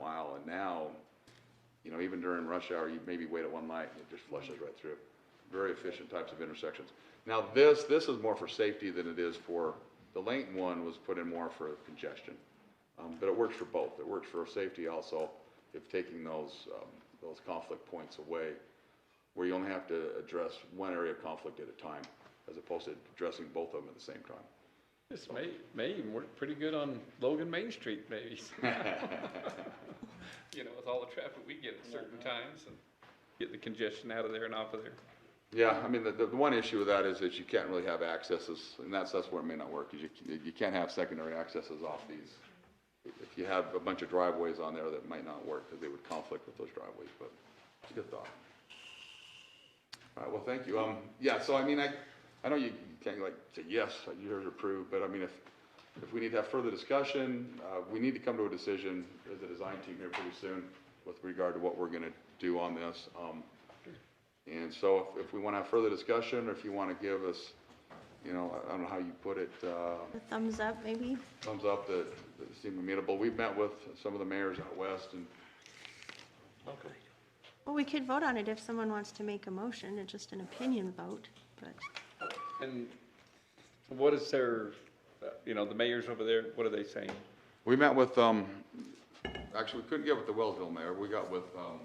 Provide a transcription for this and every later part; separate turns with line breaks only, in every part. mile, and now, you know, even during rush hour, you maybe wait at one light, and it just flushes right through. Very efficient types of intersections. Now, this, this is more for safety than it is for, the lane one was put in more for congestion. Um, but it works for both. It works for safety also, if taking those, um, those conflict points away, where you only have to address one area of conflict at a time, as opposed to addressing both of them at the same time.
This may, may even work pretty good on Logan Main Street, maybe. You know, with all the traffic we get at certain times and get the congestion out of there and off of there.
Yeah, I mean, the, the one issue with that is that you can't really have accesses, and that's, that's where it may not work, is you, you can't have secondary accesses off these. If you have a bunch of driveways on there, that might not work, because they would conflict with those driveways, but it's a good thought. All right, well, thank you. Um, yeah, so I mean, I, I know you can't like say, yes, you heard approved, but I mean, if, if we need to have further discussion, uh, we need to come to a decision as a design team here pretty soon with regard to what we're gonna do on this. Um, and so if, if we want to have further discussion, or if you want to give us, you know, I- I don't know how you put it, uh,
A thumbs up, maybe?
thumbs up that that seem amenable. We've met with some of the mayors out west and,
Well, we could vote on it if someone wants to make a motion, it's just an opinion vote, but
And what is their, uh, you know, the mayors over there, what are they saying?
we met with, um, actually, we couldn't get with the Wellsville mayor. We got with, um,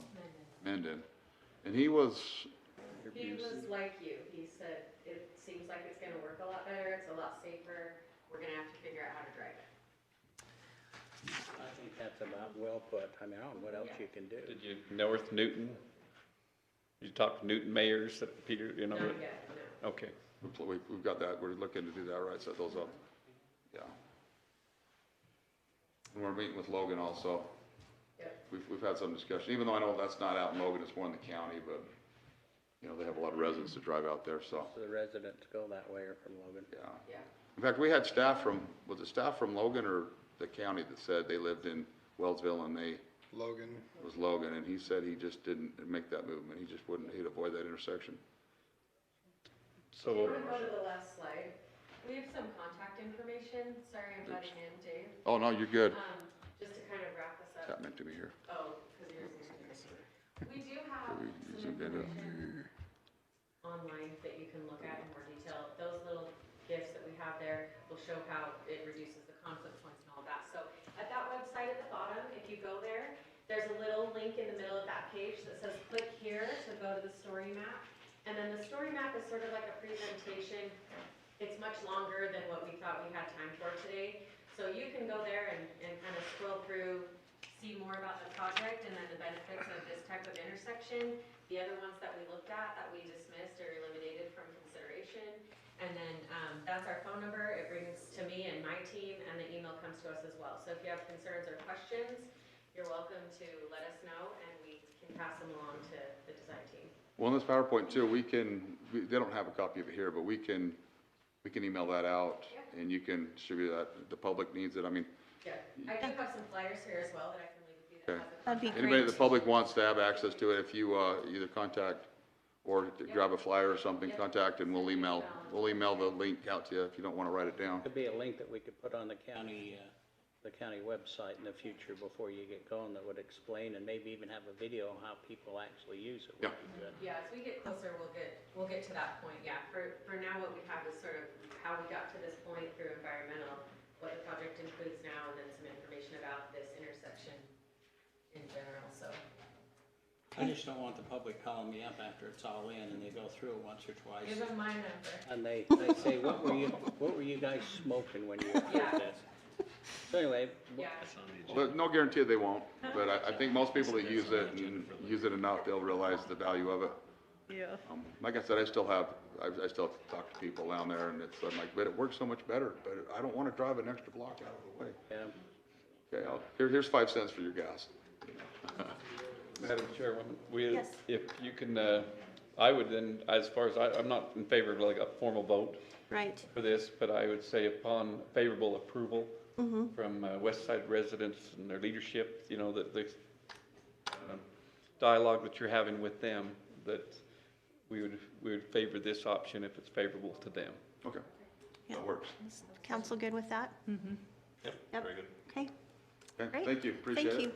Mendon. And he was,
He was like you, he said, it seems like it's gonna work a lot better, it's a lot safer, we're gonna have to figure out how to drive it.
I think that's about well put. I mean, I don't know what else you can do.
Did you, North Newton? You talked to Newton mayors that Peter, you know?
Not
that-
yet, no.
Okay.
we pl- we- we've got that, we're looking to do that, right, set those up. Yeah. And we're meeting with Logan also.
Yep.
We've, we've had some discussion, even though I know that's not out in Logan, it's more in the county, but, you know, they have a lot of residents that drive out there, so,
So the residents go that way or from Logan.
yeah.
Yeah.
In fact, we had staff from, was it staff from Logan or the county that said they lived in Wellsville and they,
Logan,
it was Logan, and he said he just didn't make that movement, he just wouldn't, he'd avoid that intersection.
Can
So,
we go to the last slide? We have some contact information, sorry I'm butting in, Dave,
Oh, no, you're good,
um, just to kind of wrap this up.
that meant to be here.
Oh, because yours is. We do have
We- we
some
zoomed in.
information online that you can look at in more detail. Those little gifts that we have there will show how it reduces the conflict points and all that. So at that website at the bottom, if you go there, there's a little link in the middle of that page that says click here to go to the story map. And then the story map is sort of like a presentation. It's much longer than what we thought we had time for today. So you can go there and, and kind of scroll through see more about the project and then the benefits of this type of intersection. The other ones that we looked at, that we dismissed or eliminated from consideration. And then, um, that's our phone number, it brings to me and my team, and the email comes to us as well. So if you have concerns or questions, you're welcome to let us know, and we can pass them along to the design team.
Well, in this PowerPoint too, we can, we- they don't have a copy of it here, but we can, we can email that out
Yeah.
and you can distribute that. The public needs it. I mean,
Yeah, I do have some flyers here as well that I can leave with you that has the
that'd be
anybody in
great.
the public wants to have access to it, if you, uh, either contact or to grab a flyer or something,
Yeah.
contact and we'll email, we'll email the link out to you if you don't want to write it down.
Could be a link that we could put on the county, uh, the county website in the future before you get going that would explain and maybe even have a video on how people actually use it. would
Yeah.
be good.
Yeah, as we get closer, we'll get, we'll get to that point, yeah. For, for now, what we have is sort of how we got to this point through environmental, what the project includes now, and then some information about this intersection in general, so.
I just don't want the public calling me up after it's all in and they go through it once or
Give
twice.
them my number.
And they, they say, what were you, what were you guys smoking when you
Yeah.
approved this? So anyway,
Yeah,
But no guarantee that they won't, but I, I think most people that use it and use it enough, they'll realize the value of it.
Yeah.
Um, Like I said, I still have, I, I still talk to people down there and it's, I'm like, but it works so much better, but I don't want to drive an extra block out of the way.
yeah.
Okay, I'll, here, here's five cents for your gas.
Madam Chairwoman, we,
Yes.
if you can, uh, I would then, as far as, I, I'm not in favor of like a formal vote
Right,
for this, but I would say upon favorable approval from uh, West Side residents and their leadership, you know, that the um, dialogue that you're having with them, that we would, we would favor this option if it's favorable to them.
Okay,
Yeah.
that works.
Is council good with that? Mm-hmm. Yep, very good. Okay,
Okay,
Great.
thank you, appreciate it.
thank you.